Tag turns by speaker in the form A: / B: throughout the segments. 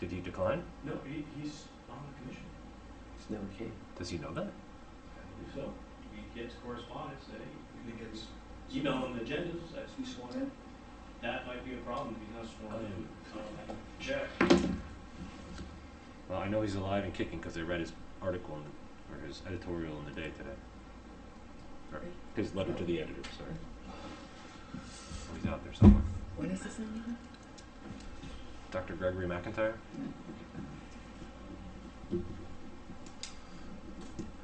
A: Did he decline?
B: No, he, he's on the commission.
C: It's never came.
A: Does he know that?
B: I believe so. He gets correspondence, say,
D: He gets,
B: email him agendas, that's,
D: he's sworn in?
B: that might be a problem if he's not sworn in. Um, Check.
A: Well, I know he's alive and kicking because I read his article in, or his editorial in the day today. Or his letter to the editor, sorry. So He's out there somewhere.
E: What is his name again?
A: Dr. Gregory McIntyre?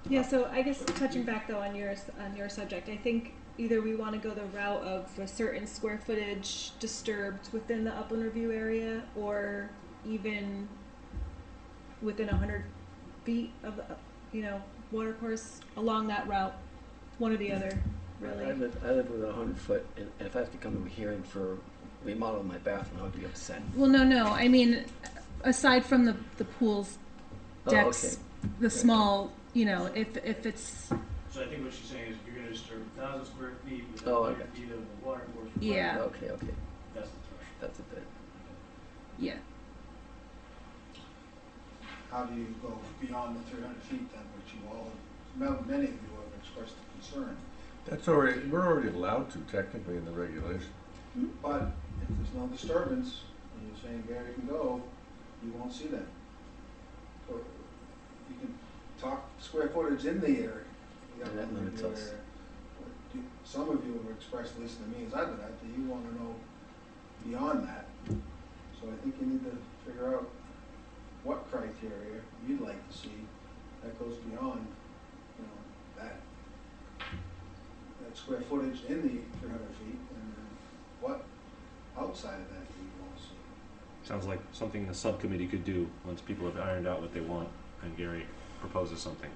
F: Yeah, so I guess touching back though on yours on your subject, I think either we want to go the route of a certain square footage disturbed within the upland review area, or even within hundred feet of the, uh, you know watercourse along that route, one or the other,
C: I
F: really.
C: live, I live with a hundred foot, and if I have to come to a hearing for remodeling my bathroom, I would be upset.
F: Well, no, no, I mean, aside from the the pools,
C: Oh,
F: decks,
C: okay.
F: the small, you know, if if it's
B: So I think what she's saying is if you're gonna disturb a thousand square feet with a
C: Oh,
B: hundred
C: okay.
B: feet of the water course.
F: Yeah.
C: Okay, okay,
B: That's the threshold.
C: that's a bit.
F: yeah.
D: How do you go beyond the three hundred feet then, which you all, m- many of you have expressed concern?
G: That's already, we're already allowed to technically in the regulation.
D: But if there's no disturbance, and you're saying Gary can go, you won't see that. Or You can talk square footage in the area. the
C: Yeah, that
D: upland
C: limits
D: review
C: us.
D: area. But you- Some of you have expressed, listen to me as I've been out there, you wanna know beyond that. So I think you need to figure out what criteria you'd like to see that goes beyond, you know, that, that square footage in the three hundred feet, and then what outside of that do you want to see?
A: Sounds like something the subcommittee could do once people have ironed out what they want and Gary proposes something.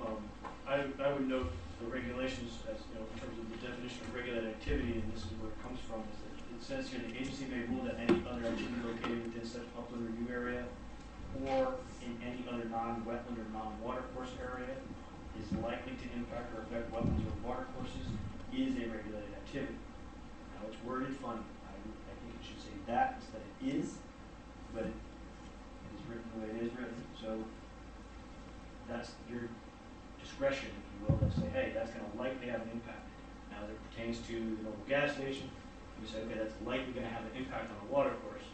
B: Um, I, I would note the regulations as, you know, in terms of the definition of regulated activity, and this is where it comes from, is that it says here, the agency may rule that any other activity located within such upland review area or in any other non-wetland or non-water course area is likely to impact or affect wetlands or water courses is a regulated activity. Now, it's worded funny. I, I think it should say that instead of is, but it is written the way it is written, so that's your discretion, if you will, to say, hey, that's gonna likely have an impact. Now, as it pertains to the local gas station, you say, okay, that's likely gonna have an impact on the water course.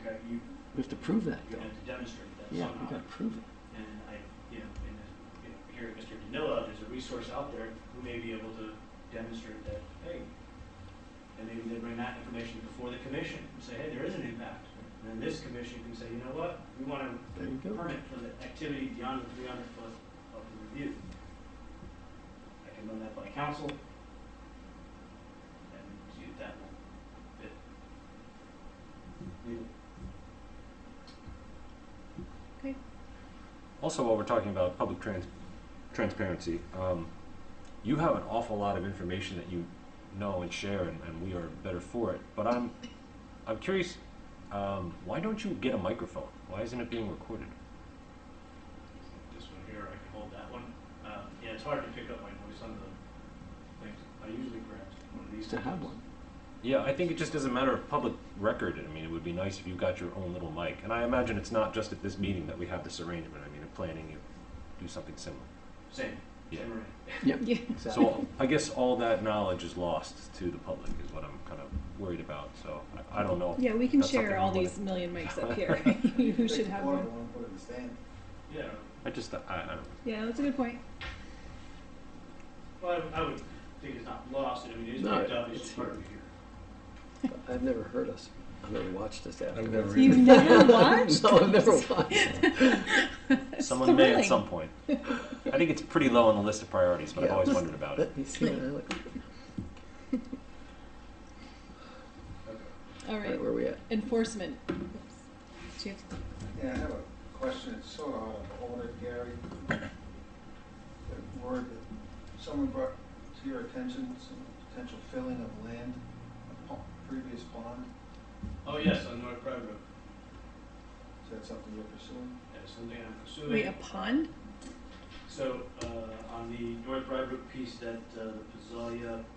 B: Okay, you,
C: We have to prove that,
B: you
C: though.
B: have to demonstrate that
C: Yeah, we
B: somehow.
C: gotta prove it.
B: And I, you know, and, uh, you know, here at Mr. Danila, there's a resource out there who may be able to demonstrate that, hey, and maybe they bring that information before the commission and say, hey, there is an impact. And then this commission can say, you know what, we wanna
C: There you go.
B: permit for the activity beyond the three hundred foot of the review. I can run that by council. And see if that will fit. Legal.
A: Also, while we're talking about public trans- transparency, um, you have an awful lot of information that you know and share, and, and we are better for it. But I'm, I'm curious, um, why don't you get a microphone? Why isn't it being recorded?
B: This one here, I can hold that one. Uh, yeah, it's hard to pick up my voice on the things. I usually grab one of these.
C: Used to have
B: things.
C: one.
A: Yeah, I think it just is a matter of public record. I mean, it would be nice if you got your own little mic. And I imagine it's not just at this meeting that we have this arrangement. I mean, in planning, you do something similar.
B: Same,
A: Yeah.
B: same array.
C: Yep,
F: Yeah.
C: exactly.
A: So I guess all that knowledge is lost to the public is what I'm kind of worried about. So I, I don't know. if
F: Yeah, we can
A: That's something
F: share
A: we
F: all
A: wanna-
F: these million mics up here. You should have one.
D: Portable and put it in the stand.
B: Yeah,
A: I just, I, I don't know.
F: Yeah, that's a good point.
B: well, I I would think it's not lost, I mean, it is
C: No,
B: picked up, it's
C: it's
B: just hard to
C: here.
B: hear.
C: I've never heard us, I've never watched us afterwards.
G: never
F: You've never watched?
C: No, I've never watched.
F: That's
A: Someone may at
F: thrilling.
A: some point. I think it's pretty low on the list of priorities, but I've
C: Yeah.
A: always wondered about it.
C: Let me see what I look,
F: All right,
C: right, where we at?
F: enforcement. Oops. Do you have-
D: Yeah, I have a question, it's sort of out of order, Gary. The word that someone brought to your attention, some potential filling of land, a po- previous pond,
B: Oh, yes, on North Pride Road,
D: is that something you're pursuing?
B: that's something I'm pursuing.
F: Wait, a pond?
B: So, uh, on the North Pride Road piece that, uh, the Pizzalia